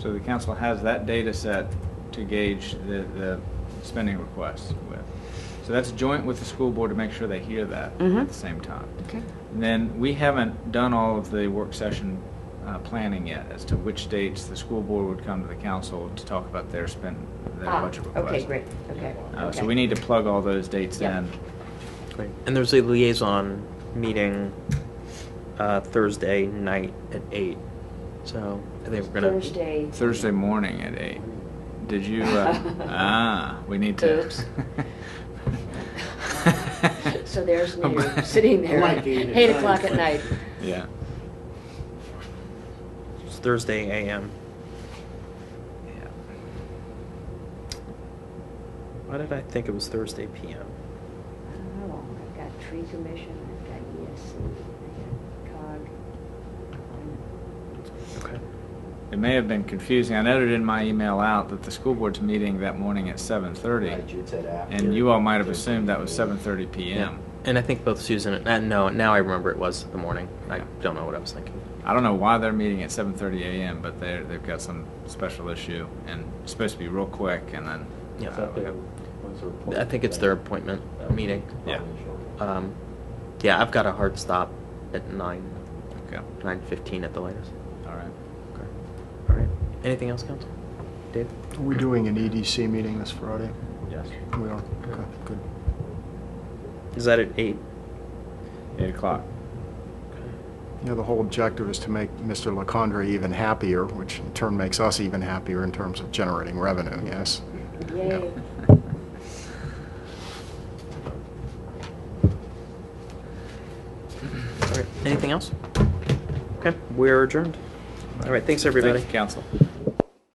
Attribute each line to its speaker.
Speaker 1: So the council has that data set to gauge the, the spending requests with. So that's joint with the school board to make sure they hear that
Speaker 2: Mhm.
Speaker 1: at the same time.
Speaker 2: Okay.
Speaker 1: And then we haven't done all of the work session uh, planning yet as to which dates the school board would come to the council to talk about their spend, their
Speaker 2: Ah,
Speaker 1: budget request.
Speaker 2: Okay, great, okay.
Speaker 1: Uh, So
Speaker 2: okay.
Speaker 1: we need to plug all those dates
Speaker 2: Yeah.
Speaker 1: in.
Speaker 3: Great. And there's a liaison meeting uh, Thursday night at eight. So I think we're gonna.
Speaker 2: Thursday.
Speaker 1: Thursday morning at eight. Did you? Uh, ah, we need to.
Speaker 2: Oops. So there's me sitting there,
Speaker 4: I
Speaker 2: at
Speaker 4: like being in
Speaker 2: eight
Speaker 4: charge,
Speaker 2: o'clock at
Speaker 4: but-
Speaker 2: night.
Speaker 1: Yeah.
Speaker 3: It's Thursday AM.
Speaker 1: Yeah.
Speaker 3: Why did I think it was Thursday PM?
Speaker 2: I don't know, Oh, I've got tree commission, I've got ESC, I've got COG.
Speaker 3: Okay.
Speaker 1: It may have been confusing. I noted in my email out that the school board's meeting that morning at seven thirty,
Speaker 4: Right, you'd said after.
Speaker 1: and you all might have assumed that was seven thirty p.m.
Speaker 3: And I think both Susan and uh, no, now I remember it was the morning. I
Speaker 1: Yeah.
Speaker 3: don't know what I was thinking.
Speaker 1: I don't know why they're meeting at seven thirty a.m., but they they've got some special issue and it's supposed to be real quick, and then
Speaker 3: Yeah.
Speaker 1: uh, we have-
Speaker 3: I think it's their appointment meeting.
Speaker 1: Yeah.
Speaker 3: Um, yeah, I've got a hard stop at nine,
Speaker 1: okay,
Speaker 3: nine fifteen at the latest.
Speaker 1: all right.
Speaker 3: Okay. All right. Anything else, Council? Dave?
Speaker 5: Are we doing an EDC meeting this Friday?
Speaker 1: Yes.
Speaker 5: We are, okay, good.
Speaker 3: Is that at eight?
Speaker 1: Eight o'clock.
Speaker 5: You know, the whole objective is to make Mr. LaCondre even happier, which in turn makes us even happier in terms of generating revenue, yes?
Speaker 2: Yay.
Speaker 3: All right. Anything else? Okay, we're adjourned. All right, thanks, everybody.
Speaker 1: Thank you, council.